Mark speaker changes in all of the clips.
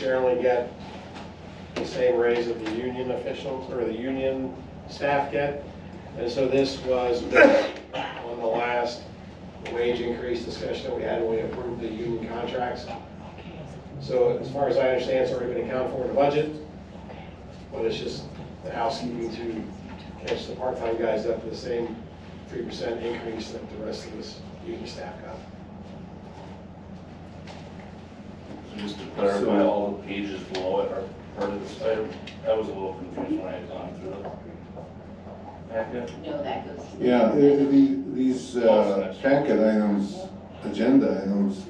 Speaker 1: generally get the same raise that the union officials or the union staff get. And so this was on the last wage increase discussion that we had when we approved the union contracts. So as far as I understand, it's already been accounted for in the budget, but it's just the housekeeping to catch the part-time guys up to the same three percent increase that the rest of this union staff got.
Speaker 2: Just to clarify, all the pages below it are part of this item. I was a little confused when I had gone through it. Back up.
Speaker 3: No, that goes. to the-
Speaker 4: Yeah, i- i- the- these uh, packet items, agenda items,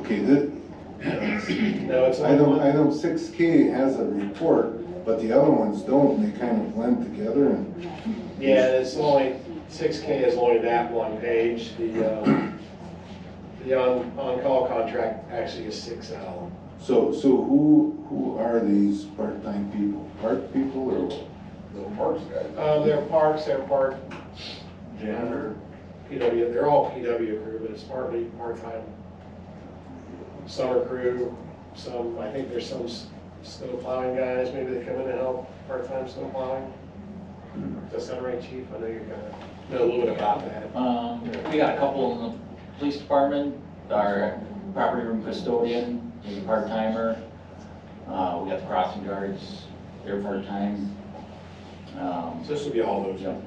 Speaker 4: okay, the,
Speaker 1: No, it's only
Speaker 4: item,
Speaker 1: one.
Speaker 4: item six K has a report, but the other ones don't, they kind of blend together and,
Speaker 1: Yeah, it's only, six K is only that one page, the, um, the on, on-call contract actually is six L.
Speaker 4: so, so who, who are these part-time people? Park people or what?
Speaker 2: The parks guy.
Speaker 1: Um, they're parks, they're park,
Speaker 2: Janitor.
Speaker 1: PW, they're all PW crew, but it's partly part-time. Summer crew, some, I think there's some s- snow plowing guys, maybe they come in to help, part-time snow plowing. Does that sound right, chief? I know you're gonna know a little bit about that.
Speaker 5: Um, we got a couple in the police department, our property room custodian is a part-timer. Uh, we got the crossing guards, they're part-time. Um,
Speaker 1: So this will be all those.
Speaker 5: Yep.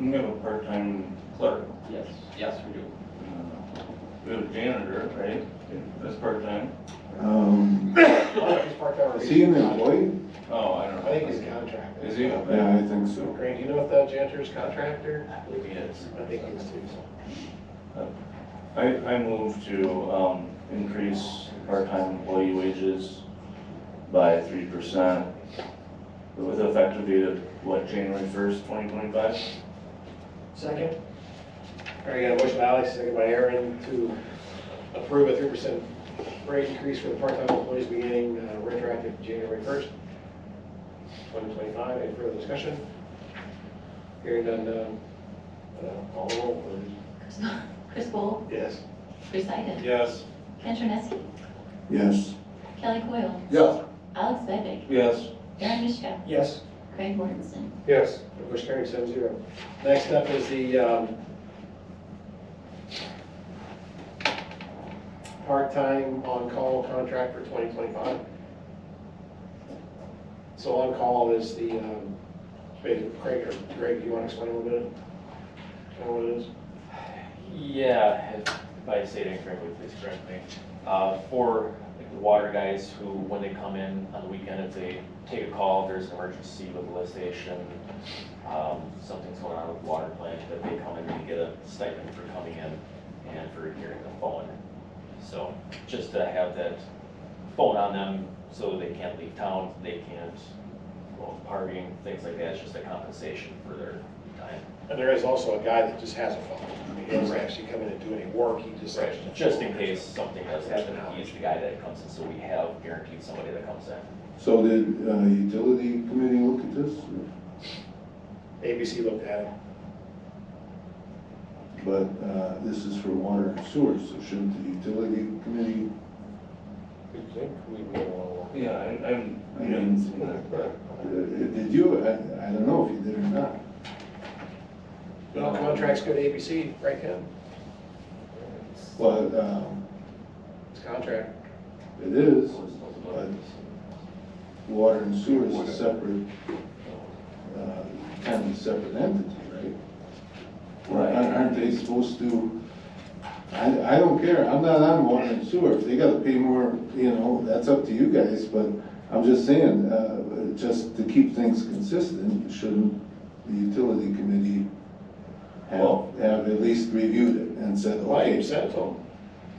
Speaker 2: We have a part-time clerk.
Speaker 5: yes, yes, we do.
Speaker 2: Uh, We have a janitor, right? That's part-time.
Speaker 4: Um, Is he an employee?
Speaker 2: Oh, I
Speaker 1: I
Speaker 2: don't know.
Speaker 1: think he's contracted.
Speaker 2: Is he?
Speaker 4: Yeah, I think so.
Speaker 1: Greg, do you know if the janitor's contractor?
Speaker 2: I believe he is.
Speaker 1: I think he was too.
Speaker 2: I, I move to, um, increase part-time employee wages by three percent with effective date of, what, January first, twenty twenty-five?
Speaker 1: Second. All right, got a motion by Alex, second by Aaron to approve a three percent rate increase for the part-time employees beginning uh, retroactive January first, twenty twenty-five. Any further discussion? Hearing none, um, uh, call the roll, please.
Speaker 3: Chris- Chris Bowl,
Speaker 1: Yes.
Speaker 3: Chris Iden,
Speaker 2: Yes.
Speaker 3: Ken Troneski,
Speaker 4: Yes.
Speaker 3: Kelly Coyle,
Speaker 2: Yes.
Speaker 3: Alex Bedwick,
Speaker 2: Yes.
Speaker 3: Aaron Mishka,
Speaker 1: Yes.
Speaker 3: Craig Mortensen.
Speaker 1: Yes. Motion carried seven zero. Next up is the, um, part-time on-call contract for twenty twenty-five. So on-call is the, um, Craig, Craig, or Greg, do you want to explain a little bit? Kind of what it is?
Speaker 6: Yeah, if if I say it incorrectly, please correct me. Uh, For like the water guys who, when they come in on the weekend, if they take a call, if there's an emergency with the lift station, um, something's going on with the water plant, that they come in and get a stipend for coming in and for hearing the phone. So just to have that phone on them so they can't leave town, they can't go partying, things like that, it's just a compensation for their time.
Speaker 1: And there is also a guy that just has a phone. I mean, He doesn't actually come in and do any work, he just. has a
Speaker 6: Just in
Speaker 1: phone.
Speaker 6: case something does happen, he's the guy that comes in, so we have guaranteed somebody that comes in.
Speaker 4: So did uh, utility committee look at this?
Speaker 1: ABC looked at it.
Speaker 4: But uh, this is for water and sewer, so shouldn't the utility committee
Speaker 2: Yeah, I, I'm.
Speaker 4: I mean, Uh, Did you, I, I don't know if you did or not.
Speaker 1: No contracts go to ABC, right, Ken?
Speaker 4: But, um,
Speaker 1: It's contract.
Speaker 4: it is, but water and sewer is a separate, uh, kind of separate entity, right? Or aren't- Aren't they supposed to, I, I don't care, I'm not on water and sewer, if they gotta pay more, you know, that's up to you guys, but I'm just saying, uh, just to keep things consistent, shouldn't the utility committee have,
Speaker 2: Well-
Speaker 4: have at least reviewed it and said,
Speaker 1: Well, you
Speaker 4: okay,
Speaker 1: can send it to them.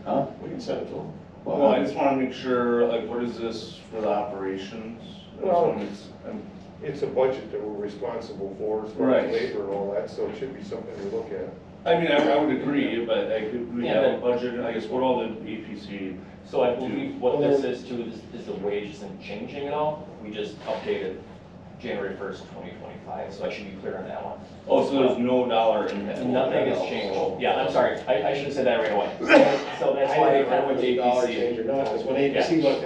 Speaker 4: huh?
Speaker 1: We can send it to them.
Speaker 2: Well, I just wanna make sure, like, what is this for the operations? I just
Speaker 7: Well-
Speaker 2: wanna- I'm-
Speaker 7: It's a budget that we're responsible for, as far
Speaker 2: Right.
Speaker 7: as labor and all that, so it should be something to look at.
Speaker 2: I mean, I, I would agree, but I could, we
Speaker 6: Yeah,
Speaker 2: have a budget, I guess, what all E the APC,
Speaker 6: So I believe what this is too, is, is the wage isn't changing at all, we just updated January first, twenty twenty-five, so I should be clear on that one.
Speaker 2: oh, so there's no dollar impact?
Speaker 6: Nothing has changed, yeah, I'm sorry, I, I should have said that right away. So that's why I went to
Speaker 1: Dollar
Speaker 6: APC.
Speaker 1: change or not, 'cause when ABC looked at